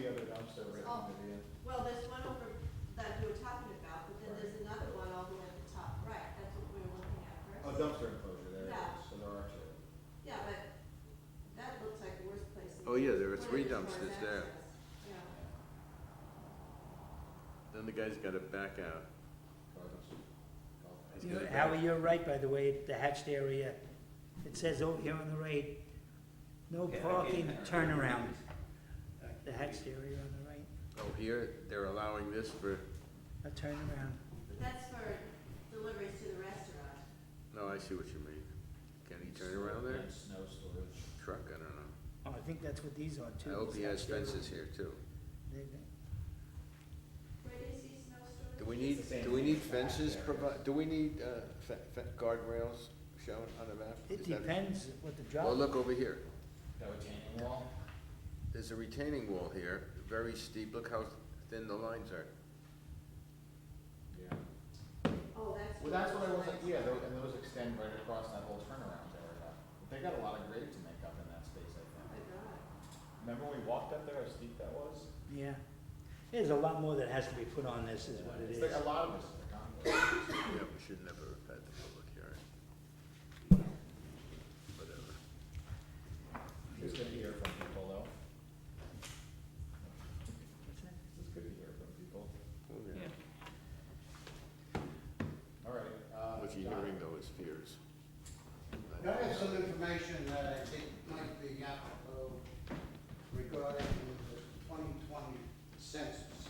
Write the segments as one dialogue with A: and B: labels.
A: that are recommended, yeah.
B: Well, there's one over that you were talking about, but then there's another one all the way at the top right, that's what we were looking at
A: A
B: first.
A: Oh, dumpster enclosure there, it
B: Yeah.
A: is. so there are two.
B: Yeah, but that looks like the worst place. in
C: Oh, yeah, there were
B: Florida
C: three
B: as far as
C: dumpsters there.
B: access. Yeah,
C: Then the guy's gotta back out.
A: Or dumpster. Golf.
C: He's
D: You know,
C: gotta back-
D: Howie, you're right, by the way, the hatched area, it says over here on the right, no
E: Yeah, I
D: parking
E: get it.
D: turnaround. The hatched area on the right,
C: Oh, here, they're allowing this for,
D: a turnaround.
B: but that's for deliveries to the restaurant.
C: no, I see what you mean. Can he turn around there?
A: And snow storage.
C: Truck, I don't know.
D: Oh, I think that's what these are too.
C: I hope he
D: these
C: has
D: hatched areas.
C: fences here too.
D: They- they-
B: Where do you see snow storage?
C: Do we need,
A: It's the same
C: do we need
A: thing as the
C: fences
A: back
C: provi,
A: areas.
C: do we need, uh, fe- fe- guardrails shown on the map?
D: It
C: Is that-
D: depends what the job.
C: Well, look over here.
A: That retaining wall?
C: There's a retaining wall here, very steep. Look how thin the lines are.
A: Yeah.
B: Oh, that's.
A: Well, that's what I was
B: it's
A: like, yeah, tho- and those extend right across that whole turnaround area. But They got a lot of grade to make up in that space, I
B: Oh,
A: think.
B: my God.
A: Remember when we walked up there, how steep that was?
D: Yeah, there's a lot more that has to be put on this is what it
A: It's
D: is.
A: like
C: uh,
A: a lot of us in the concourse.
C: Yeah, we should never have had the public hearing. Whatever.
A: It's good to hear from people, though.
D: What's that?
A: It's good to hear from people.
C: Oh, yeah.
E: Yeah.
A: All right, uh.
C: What you're
A: John?
C: hearing though is fears.
F: I have some information that I think might be applicable regarding the 2020 census.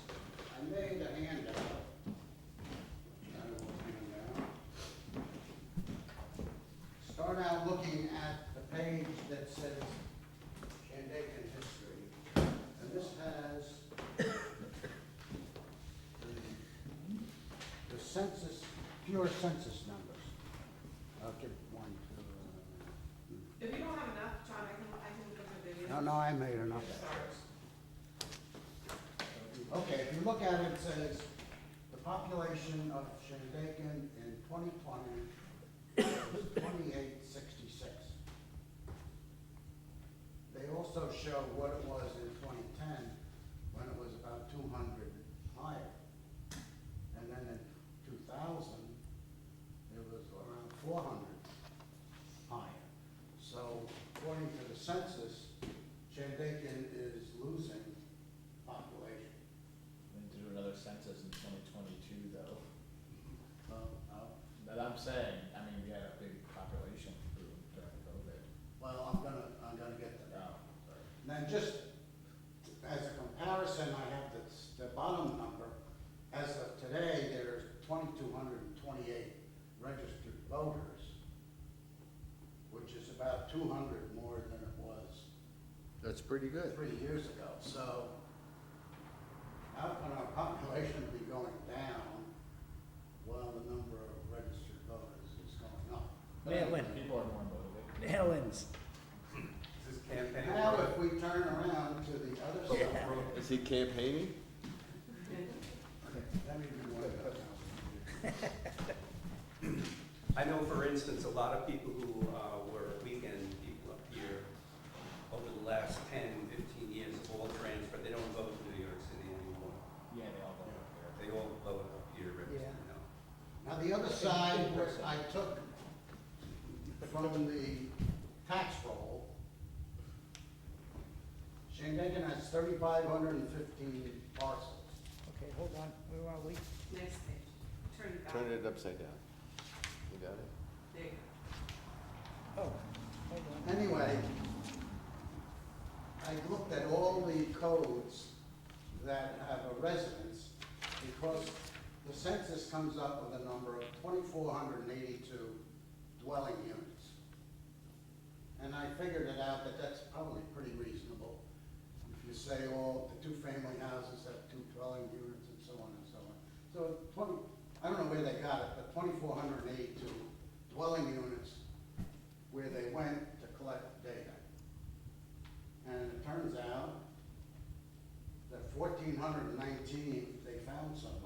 F: I made a handout. I don't know what handout. Start out looking at the page that says Shandaken history. And this has the- the census, pure census numbers. I'll give one to, uh,
G: If you don't have enough, John, I can, I can look at the video.
F: no, no, I made enough. Okay, if you look at it, it says, the population of Shandaken in twenty twenty was twenty-eight sixty-six. They also show what it was in twenty ten, when it was about two hundred higher. And then in two thousand, it was around four hundred higher. So according to the census, Shandaken is losing population.
A: We need to do another census in twenty twenty-two, though.
F: Uh, uh,
A: But I'm saying, I mean, we had a big population boom during COVID.
F: Well, I'm gonna, I'm gonna get to that.
A: Oh, sorry.
F: Now, just as a comparison, I have this, the bottom number. As of today, there's twenty-two hundred and twenty-eight registered voters, which is about two hundred more than it was
C: That's pretty good.
F: three years ago, so how can our population be going down while the number of registered voters is going up?
A: But I think
D: Mail-in.
A: People are more motivated.
D: Mail-ins.
E: This campaign.
F: Now, if we turn around to the other side,
C: Is he campaigning?
F: let me do one of those.
E: I know, for instance, a lot of people who uh, were weekend people up here over the last 10, 15 years have all transferred. They don't vote in New York City anymore.
A: Yeah, they all voted there.
E: They all vote up here, you
D: Yeah.
E: know.
F: Now, the other side, where I took from the tax roll, Shandaken has thirty-five hundred and fifteen parcels.
D: Okay, hold on, where are we?
G: Next page, turn it back.
C: Turn it upside down. You got it?
G: There you go.
D: Oh, hold on.
F: Anyway, I looked at all the codes that have a residence, because the census comes up with a number of twenty-four hundred and eighty-two dwelling units. And I figured it out that that's probably pretty reasonable. If you say all the two-family houses have two dwelling units and so on and so on. So twenty, I don't know where they got it, but twenty-four hundred and eighty-two dwelling units where they went to collect data. And it turns out that fourteen hundred and nineteen, they found somebody.